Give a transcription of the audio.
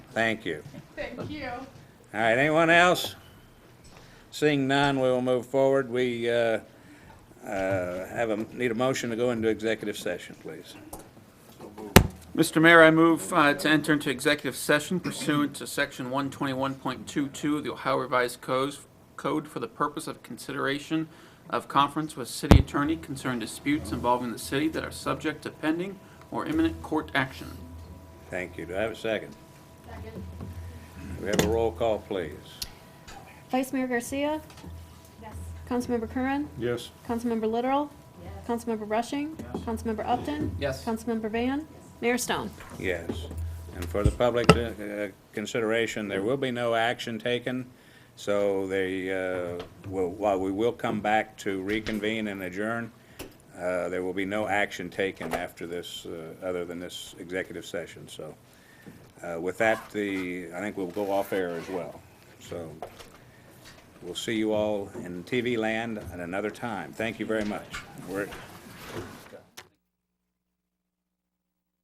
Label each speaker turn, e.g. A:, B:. A: Thank you.
B: Thank you.
A: All right, anyone else? Seeing none, we will move forward. We uh, uh, have a, need a motion to go into executive session, please.
C: Mr. Mayor, I move uh, to enter into executive session pursuant to Section 121.22 of the Ohio Revised Codes- Code for the purpose of consideration of conference with city attorney concerning disputes involving the city that are subject to pending or imminent court action.
A: Thank you. Do I have a second? We have a roll call, please.
D: Vice Mayor Garcia?
B: Yes.
D: Councilmember Curran?
A: Yes.
D: Councilmember Literal? Councilmember Rushing? Councilmember Upton?
C: Yes.
D: Councilmember Van? Mayor Stone?
A: Yes. And for the public uh, uh, consideration, there will be no action taken, so they, uh, will- while we will come back to reconvene and adjourn, uh, there will be no action taken after this, uh, other than this executive session, so. uh, With that, the, I think we'll go off air as well. So we'll see you all in TV land at another time. Thank you very much. We're